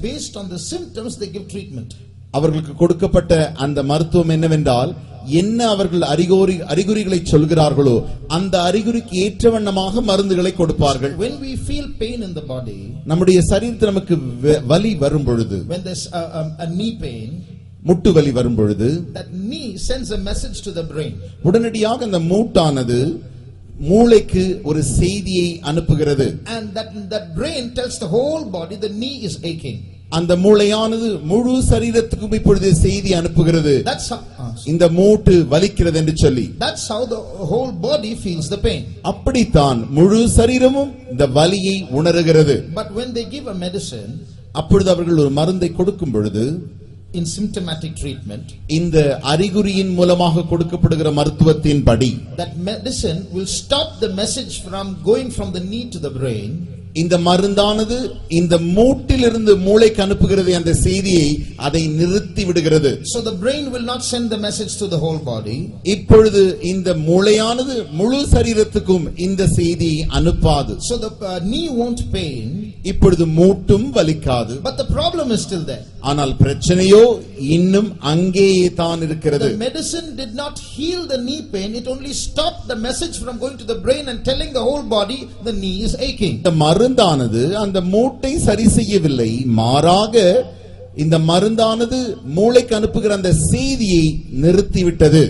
based on the symptoms, they give treatment. அவர்களுக்கு கொடுக்கப்பட்ட அந்த மருத்துவம் என்னவென்றால் என்ன அவர்கள் அறிகுறி அறிகுறிகளை சொல்கிறார்களோ அந்த அறிகுறிக்கு ஏற்ற வண்ணமாக மருந்துகளை கொடுப்பார்கள் When we feel pain in the body, நம்முடைய சரீரத்தில் நமக்கு வ- வலி வரும் பொழுது when there's a, a, a knee pain, முட்டு வலி வரும் பொழுது that knee sends a message to the brain. உடனடியாக அந்த மூட்டானது மூளைக்கு ஒரு செய்தியை அனுப்புகிறது And that, that brain tells the whole body the knee is aching. அந்த மூளையானது முழு சரீரத்துக்கும் இப்பொழுது செய்தி அனுப்புகிறது That's how, ah, sorry. இந்த மூட்டு வலிக்கிறது என்று சொல்லி that's how the whole body feels the pain. அப்படித்தான் முழு சரீரமும் இந்த வலியை உணருகிறது But when they give a medicine அப்பொழுது அவர்கள் ஒரு மருந்தை கொடுக்கும் பொழுது in symptomatic treatment, இந்த அறிகுறியின் மூலமாக கொடுக்கப்படுகிற மருத்துவத்தின் படி that medicine will stop the message from going from the knee to the brain இந்த மருந்தானது இந்த மூட்டிலிருந்து மூளைக்கு அனுப்புகிறது அந்த செய்தியை அதை நிறுத்தி விடுகிறது so the brain will not send the message to the whole body இப்பொழுது இந்த மூளையானது முழு சரீரத்துக்கும் இந்த செய்தியை அனுப்பாது so the uh, knee won't pain இப்பொழுது மூட்டும் வலிக்காது but the problem is still there ஆனால் பிரச்சனையோ இன்னும் அங்கேயே தான் இருக்கிறது the medicine did not heal the knee pain it only stopped the message from going to the brain and telling the whole body the knee is aching இந்த மருந்தானது அந்த மூட்டை சரி செய்யவில்லை மாறாக இந்த மருந்தானது மூளைக்கு அனுப்புகிற அந்த செய்தியை நிறுத்திவிட்டது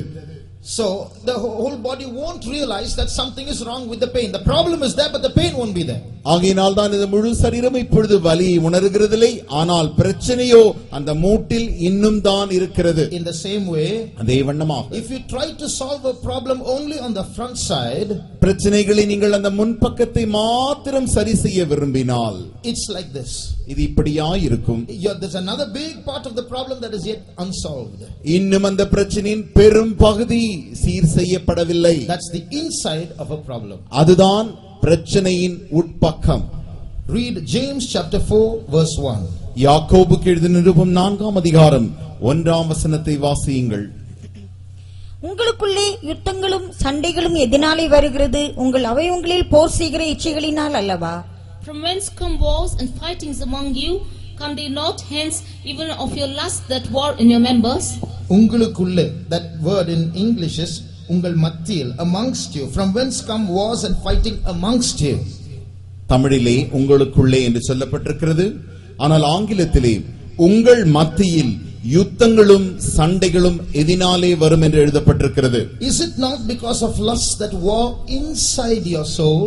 so the wh- whole body won't realize that something is wrong with the pain the problem is there but the pain won't be there ஆகையினால் தான் இந்த முழு சரீரம் இப்பொழுது வலியை உணர்கிறதில்லை ஆனால் பிரச்சனையோ அந்த மூட்டில் இன்னும் தான் இருக்கிறது in the same way அதே வண்ணமாக if you try to solve a problem only on the front side பிரச்சனைகளை நீங்கள் அந்த முன்பக்கத்தை மாத்திரம் சரி செய்ய விரும்பினால் It's like this. இது இப்படியா இருக்கும் Yeah, there's another big part of the problem that is yet unsolved. இன்னும் அந்த பிரச்சனையின் பெரும் பகுதி சீர் செய்யப்படவில்லை That's the inside of a problem. அதுதான் பிரச்சனையின் உட்பக்கம் Read James chapter 4, verse 1. யாக்கோபுக்கு எழுதின நிருபம் நான்காம் அதிகாரம் ஒன்றாம் வசனத்தை வாசியுங்கள் உங்களுக்குள்ளே யுத்தங்களும் சண்டைகளும் எதனாலே வருகிறது உங்கள் அவயவங்களில் போர் செய்கிற இச்சைகளினால் அல்லவா From whence come wars and fightings among you? Come they not hence even of your lust that war in your members? உங்களுக்குள்ளே, that word in English is உங்கள் மத்தியில், amongst you. From whence come wars and fighting amongst you? தமிழிலே உங்களுக்குள்ளே என்று சொல்லப்பட்டிருக்கிறது ஆனால் ஆங்கிலத்திலே உங்கள் மத்தியில் யுத்தங்களும் சண்டைகளும் எதினாலே வரும் என்று எழுதப்பட்டிருக்கிறது Is it not because of lust that war inside your soul?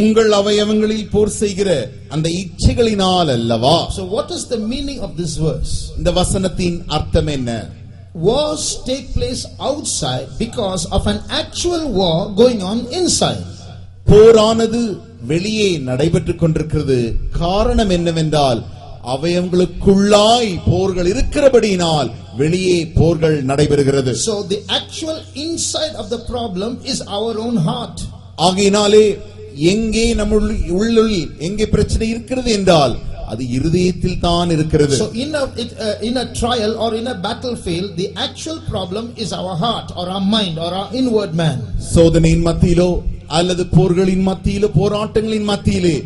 உங்கள் அவயவங்களில் போர் செய்கிற அந்த இச்சைகளினால் அல்லவா So, what is the meaning of this verse? இந்த வசனத்தின் அர்த்தம் என்ன Wars take place outside because of an actual war going on inside. போரானது வெளியே நடைபெற்றுக் கொண்டிருக்கிறது காரணம் என்னவென்றால் அவயங்களுக்குள்ளாய் போர்கள் இருக்கிறபடியினால் வெளியே போர்கள் நடைபெறுகிறது So the actual inside of the problem is our own heart. ஆகையினாலே எங்கே நம்முள் உள்ளுள் எங்கே பிரச்சனை இருக்கிறது என்றால் அது இருதயத்தில் தான் இருக்கிறது So in a it, uh, in a trial or in a battlefield, the actual problem is our heart or our mind or our inward man. சோதனையின் மத்தியிலோ அல்லது போர்களின் மத்தியிலோ போராட்டங்களின் மத்தியிலே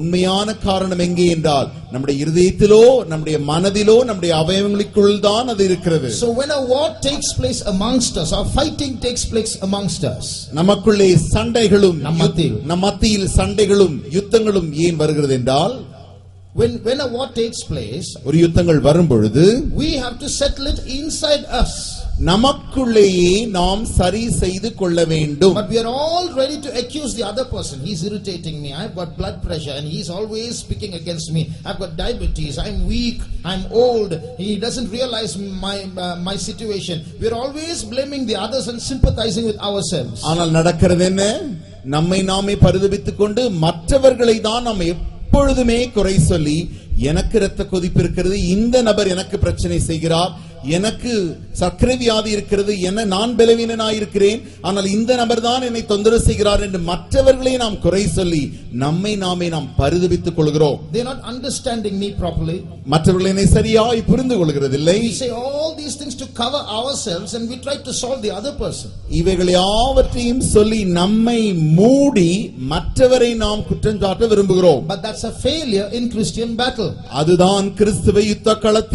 உண்மையான காரணம் எங்கே என்றால் நம்முடைய இருதயத்திலோ நம்முடைய மனதிலோ நம்முடைய அவயவங்களுக்குள் தான் அது இருக்கிறது So when a war takes place amongst us or fighting takes place amongst us, நமக்குள்ளே சண்டைகளும் நம் மத்தியில். நம் மத்தியில் சண்டைகளும் யுத்தங்களும் ஏன் வருகிறது என்றால் when when a war takes place, ஒரு யுத்தங்கள் வரும் பொழுது we have to settle it inside us. நமக்குள்ளேயே நாம் சரி செய்து கொள்ள வேண்டும் But we are all ready to accuse the other person. He's irritating me. I've got blood pressure and he's always speaking against me. I've got diabetes. I'm weak. I'm old. He doesn't realize my uh, my situation. We're always blaming the others and sympathizing with ourselves. ஆனால் நடக்கிறது என்ன நம்மை நாமே பரிதபித்துக் கொண்டு மற்றவர்களை தான் நாம் எப்பொழுதுமே குறை சொல்லி எனக்கு இரத்த கொதிப்பு இருக்கிறது இந்த நபர் எனக்கு பிரச்சனை செய்கிறார் எனக்கு சர்க்கரை வியாதி இருக்கிறது என நான் பலவீனனாயிருக்கிறேன் ஆனால் இந்த நபர் தான் என்னை தொந்தரவு செய்கிறார் என்று மற்றவர்களை நாம் குறை சொல்லி நம்மை நாமே நாம் பரிதபித்துக் கொள்கிறோம் They're not understanding me properly. மற்றவர்கள் என்னை சரியாய் புரிந்து கொள்கிறதில்லை We say all these things to cover ourselves and we try to solve the other person. இவைகள் யாவற்றையும் சொல்லி நம்மை மூடி மற்றவரை நாம் குற்றம் சாட்ட விரும்புகிறோம் But that's a failure in Christian battle. அதுதான் கிறிஸ்துவ யுத்த களத்தின்